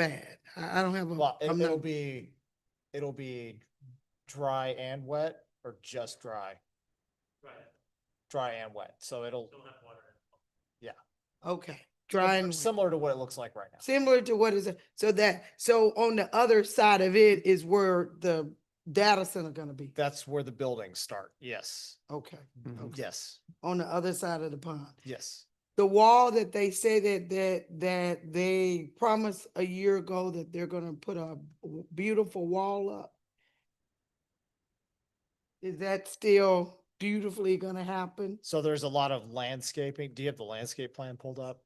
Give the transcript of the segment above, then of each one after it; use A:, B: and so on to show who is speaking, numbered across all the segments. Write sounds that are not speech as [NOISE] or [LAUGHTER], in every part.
A: bad. I, I don't have
B: Well,
A: a,
B: it-
A: I'm
B: it'll
A: not,
B: be, it'll be dry and wet or just dry,
C: Right,
B: dry and wet. So it'll,
C: don't have water. in it.
A: okay, dry and wet.
B: similar to what it looks like right now.
A: similar to what is, it- so that, so on the other side of it is where the data center gonna be.
B: That's where the buildings start. Yes,
A: Okay,
B: Mm-hmm.
A: Okay.
B: yes,
A: on the other side of the pond.
B: yes.
A: The wall that they say that, that, that they promised a year ago that they're gonna put a w- beautiful wall up. Is that still beautifully gonna happen?
B: So there's a lot of landscaping. Do you have the landscape plan pulled up?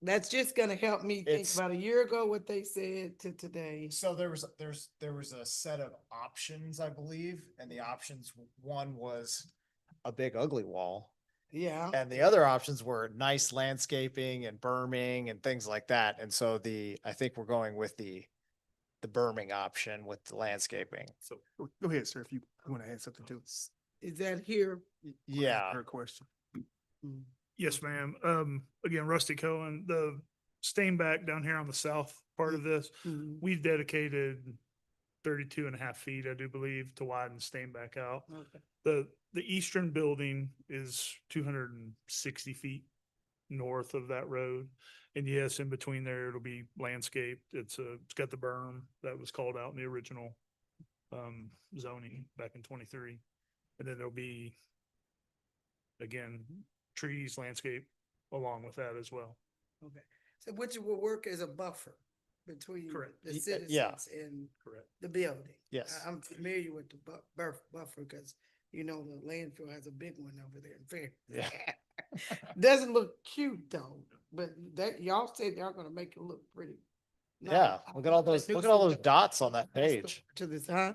A: That's just gonna help me think
B: It's-
A: about a year ago what they said to today.
B: So there was, there's, there was a set of options, I believe, and the options, w- one was a big ugly wall.
A: Yeah,
B: And the other options were nice landscaping and berming and things like that. And so the, I think we're going with the, the berming option with the landscaping.
D: So go go ahead, sir, if you want to add something to this.
A: is that here?
B: Yeah,
D: Her question.
A: Mm.
E: Yes, ma'am. Um, again, Rusty Cohen, the Steinbach down here on the south part of this,
A: Mhm.
E: we've dedicated 32 and a half feet, I do believe, to widen Steinbach out.
A: Okay.
E: The, the eastern building is two hundred and sixty feet north of that road. And yes, in between there, it'll be landscaped. It's a, it's got the berm that was called out in the original um, zoning back in twenty-three. And then there'll be, again, trees, landscape along with that as well.
A: So which will work as a buffer between
E: Correct.
A: the
B: Y- uh, yeah.
A: citizens and
E: Correct.
A: the building.
B: yes.
A: I- I'm familiar with the bu- bur- buffer because, you know, the landfill has a big one over there in fact.
B: Yeah.
A: [LAUGHS]
B: [LAUGHS]
A: Doesn't look cute though, but that, y'all said y'all gonna make it look pretty. Now,
B: Yeah,
A: I
B: look at all
A: wanna
B: those,
A: do
B: look at all
A: some
B: those
A: dot-
B: dots on that
A: That's the-
B: page.
A: To this, huh?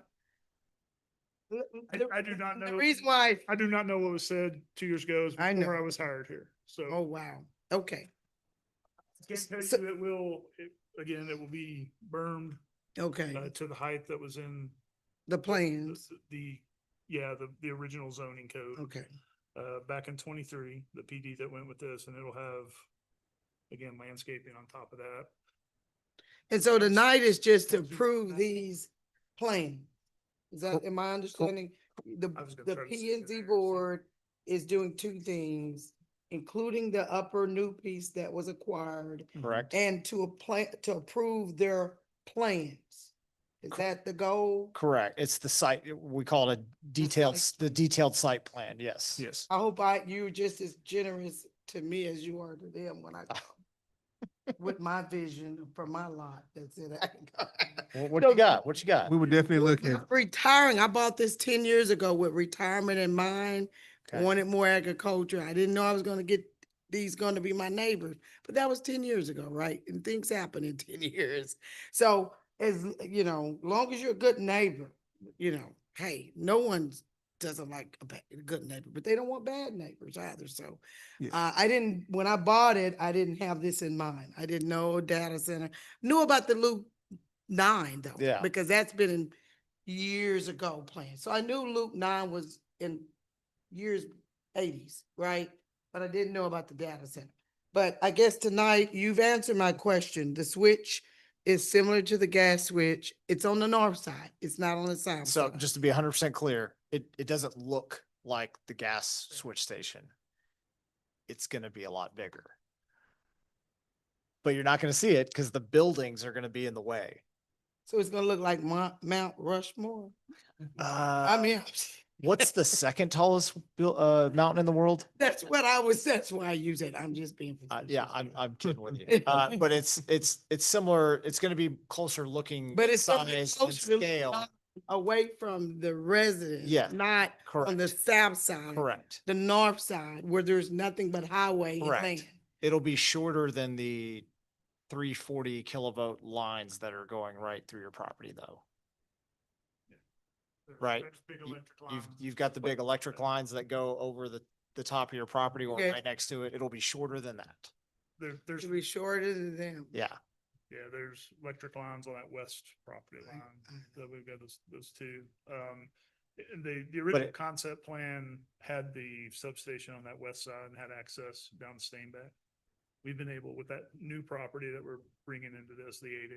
A: L- l-
E: I-
A: the-
E: I do not
A: The
E: know-
A: reason why,
E: I do not know what was said two years ago is
A: I
E: before
A: know.
E: I was hired here.
A: oh,
E: So
A: wow, okay,
E: I can tell
A: so-
E: you it will, it- again, it will be bermed uh,
A: okay,
E: to the height that was in
A: the
E: the-
A: plans,
E: the, yeah, the, the original zoning code.
A: okay,
E: Uh, back in twenty-three, the PD that went with this, and it'll have, again, landscaping on top of that.
A: and so tonight is just to approve these plans. Is that,
B: Cool.
A: am I understanding? The,
E: I was gonna
A: the
E: try to
A: P and
E: sneak
A: Z
E: in there, so-
A: board is doing two things, including the upper new piece that was acquired
B: Correct?
A: and to apply, to approve their plans. Is
B: Cor-
A: that the goal?
B: Correct. It's the site, we call it a detailed, s- the detailed site plan. Yes.
D: Yes.
A: I hope I, you're just as generous to me as you are to them when I go with my vision for my lot. That's it. I ain't got-
B: Wha- What
A: So-
B: you got? What you got?
D: We would definitely look at,
A: I'm Retiring, I bought this ten years ago with retirement in mind,
B: Okay.
A: wanted more agriculture. I didn't know I was gonna get these gonna be my neighbors, but that was ten years ago, right? And things happen in [LAUGHS] ten years. So as, you know, long as you're a good neighbor, you know, hey, no one doesn't like a ba- a good neighbor, but they don't want bad neighbors either, so.
D: Yeah.
A: Uh, I didn't, when I bought it, I didn't have this in mind. I didn't know data center, knew about the loop nine though.
B: Yeah.
A: Because that's been in years ago planned. So I knew loop nine was in years eighties, right? But I didn't know about the data center. But I guess tonight you've answered my question. The switch is similar to the gas switch. It's on the north side. It's not on the south.
B: So
A: side.
B: just to be hundred percent clear, it, it doesn't look like the gas switch station. It's gonna be a lot bigger. But you're not gonna see it because the buildings are gonna be in the way.
A: So it's gonna look like Mount, Mount Rushmore. I
B: Uh,
A: mean, [LAUGHS]
B: what's the second tallest buil- uh, mountain in the world?
A: that's what I was, that's why I use it. I'm just being.
B: Uh, yeah, I'm,
A: facetious.
B: I'm kidding with you. Uh, but it's, it's, it's similar. It's gonna be closer looking.
A: But it's something
B: size and
A: closer to
B: Scale,
A: not Away from the residents.
B: Yeah.
A: Not on the
B: correct,
A: south side.
B: correct.
A: The north side where there's nothing but highway and
B: Correct.
A: land.
B: It'll be shorter than the three forty kilovolt lines that are going right through your property though. Right.
E: Next big
B: You-
E: electric
B: You've,
E: line.
B: you've got the big electric lines that go over the, the top of your property or
A: Okay.
B: right next to it. It'll be shorter than that.
E: There, there's,
A: Should be shorter than them.
B: Yeah.
E: yeah, there's electric lines on that west property
A: I-
E: line.
A: I
E: That we've got those, those two. Um, and the, the
B: it-
E: original concept plan had the substation on that west side and had access down to Steinbeck. We've been able with that new property that we're bringing into this, the eight